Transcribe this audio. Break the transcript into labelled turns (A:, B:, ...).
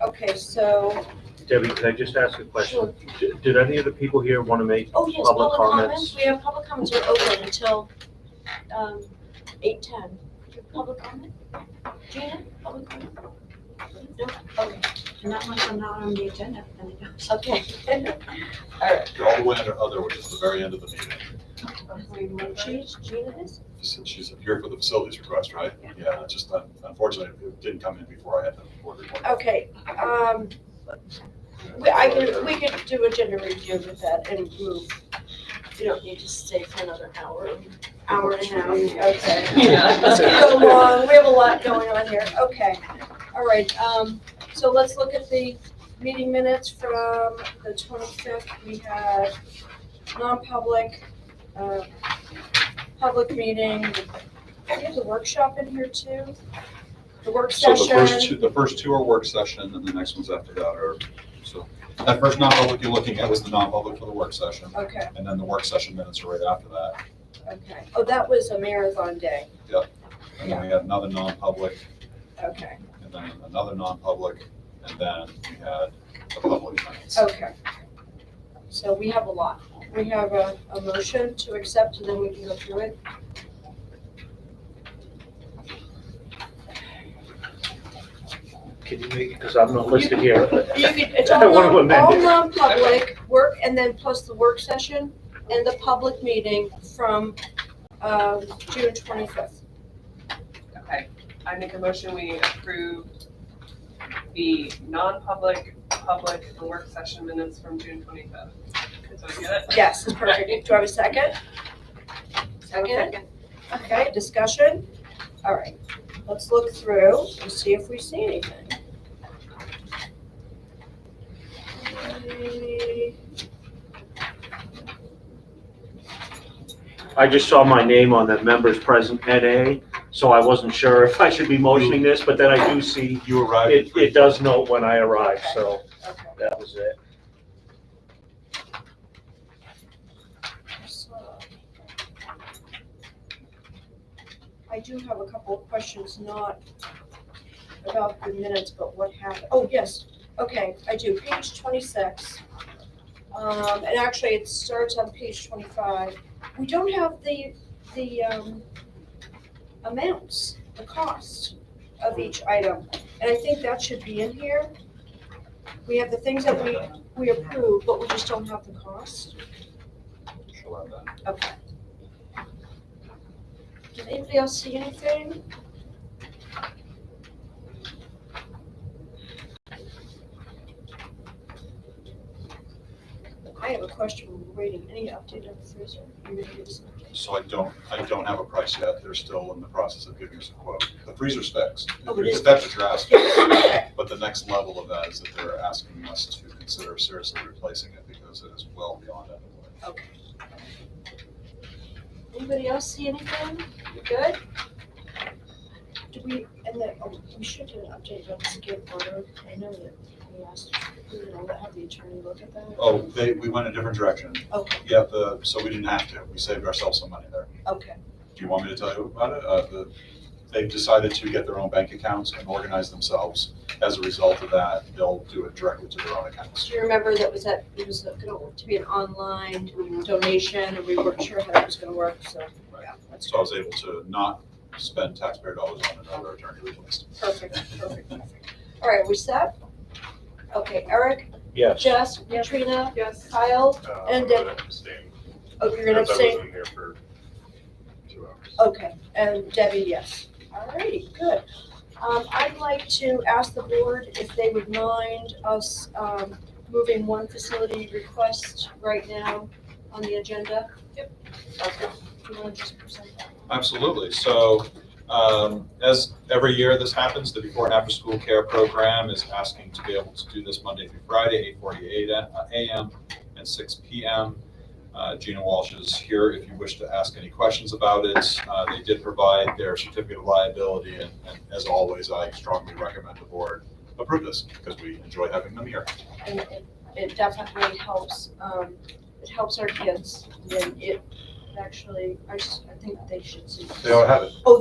A: Okay, so,
B: Debbie, can I just ask a question?
A: Sure.
B: D- Did any of the people here want to make
A: oh yes,
B: Public
A: public comments,
B: comments.
A: we have public comments are open until, um, eight ten. Public comment? Gina, public comment? No, okay,
C: Not much, I'm not on the agenda, then I don't.
A: okay.
D: They're all the way under other, which is the very end of the meeting,
A: She's, Gina is?
D: since she's here for the facilities request, right? Yeah, it's just un- unfortunately, it didn't come in before I had the board report.
A: Okay, um, we, I can, we could do agenda review with that and move. You don't need to stay for another hour, hour and a half, okay. Let's go long, we have a lot going on here, okay. All right, um, so let's look at the meeting minutes from the twenty-fifth. We had non-public, uh, public meeting. We have the workshop in here too, the work
D: So
A: session.
D: the first two, the first two are work session, and the next ones after that are, so, that first non-public you're looking at was the non-public for the work session,
A: Okay.
D: and then the work session minutes are right after that.
A: Okay, oh, that was a marathon day,
D: And then we had another non-public,
A: okay,
D: and then another non-public, and then we had the public minutes.
A: okay. So we have a lot, we have a, a motion to accept, and then we can go through it.
B: Can you make, because I'm not listed here.
A: You could, it's
B: I
A: all
B: wanna
A: non,
B: amend
A: all
B: it.
A: non-public work, and then plus the work session and the public meeting from, um, June twenty-fifth.
E: Okay, I make a motion, we approve the non-public, public, and work session minutes from June twenty-fifth. So I get it?
A: Yes, it's perfect, do I have a second? Second, okay, discussion, all right, let's look through and see if we see anything. Okay.
B: I just saw my name on the members present at A, so I wasn't sure if I should be motioning this, but then I do see
D: You arrived. at
B: it,
D: three-
B: it does note when I arrived, so
A: Okay.
B: that was it.
A: I do have a couple of questions, not about the minutes, but what happened. Oh, yes, okay, I do, page twenty-six. Um, and actually, it starts on page twenty-five. We don't have the, the, um, amounts, the cost of each item, and I think that should be in here. We have the things that we, we approve, but we just don't have the cost.
D: She'll have that.
A: Okay. Did anybody else see anything? I have a question, we're waiting, any update on the freezer? You may give us an update.
D: So I don't, I don't have a price yet. They're still in the process of giving us a quote. The freezer's fixed.
A: Oh, it is.
D: If that's what you're asking. But the next level of that is that they're asking us to consider seriously replacing it because it is well beyond end of life.
A: Anybody else see anything? You good? Do we, and then, oh, we should do an update on the skate order, I know that we asked, we were gonna have the attorney look at that.
D: Oh, they, we went a different direction.
A: Okay,
D: Yeah, the, so we didn't have to. We saved ourselves some money there.
A: okay,
D: Do you want me to tell you about it? Uh, the, they've decided to get their own bank accounts and organize themselves. As a result of that, they'll do it directly to their own accounts.
A: do you remember that was that, it was going to be an online donation, and we weren't sure how that was gonna work, so, yeah, that's
D: So I was able to not spend taxpayer dollars on another attorney replacement.
A: perfect, perfect, perfect. All right, we set? Okay, Eric,
B: Yes.
A: Jess, Katrina,
E: Yes.
A: Kyle,
F: Uh,
A: And,
F: I'm gonna abstain,
A: oh, you're gonna
F: because I
A: abstain?
F: wasn't here for two hours.
A: Okay, and Debbie, yes. Alrighty, good. Um, I'd like to ask the board if they would mind us, um, moving one facility request right now on the agenda? Yep. Okay, do you wanna just present that?
D: Absolutely. So, um, as every year this happens, the before and after school care program is asking to be able to do this Monday through Friday, eight forty-eight AM and six PM. Uh, Gina Walsh is here if you wish to ask any questions about it. Uh, they did provide their certificate of liability and, and as always, I strongly recommend the board approve this because we enjoy having them here.
A: And it, it definitely helps, um, it helps our kids, and it actually, I just, I think they should see. this.
D: They all have it.